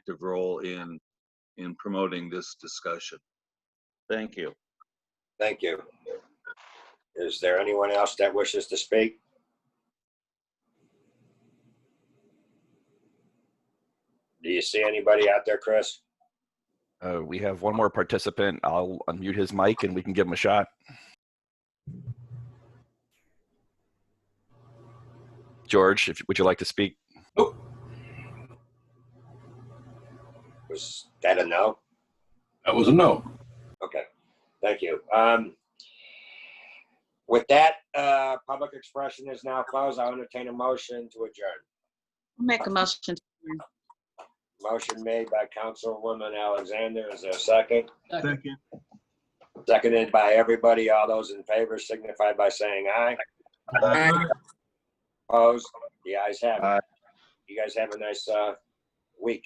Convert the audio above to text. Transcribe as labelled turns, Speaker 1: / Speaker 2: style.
Speaker 1: active role in, in promoting this discussion. Thank you.
Speaker 2: Thank you. Is there anyone else that wishes to speak? Do you see anybody out there, Chris?
Speaker 3: Uh, we have one more participant. I'll unmute his mic and we can give him a shot. George, if, would you like to speak?
Speaker 2: Was that a no?
Speaker 4: That was a no.
Speaker 2: Okay, thank you. Um, With that, uh, public expression is now closed. I'll entertain a motion to adjourn.
Speaker 5: Make a motion.
Speaker 2: Motion made by Councilwoman Alexander. Is there a second?
Speaker 1: Second.
Speaker 2: Seconded by everybody. All those in favor signify by saying aye. Opposed? The ayes have it. You guys have a nice uh, week.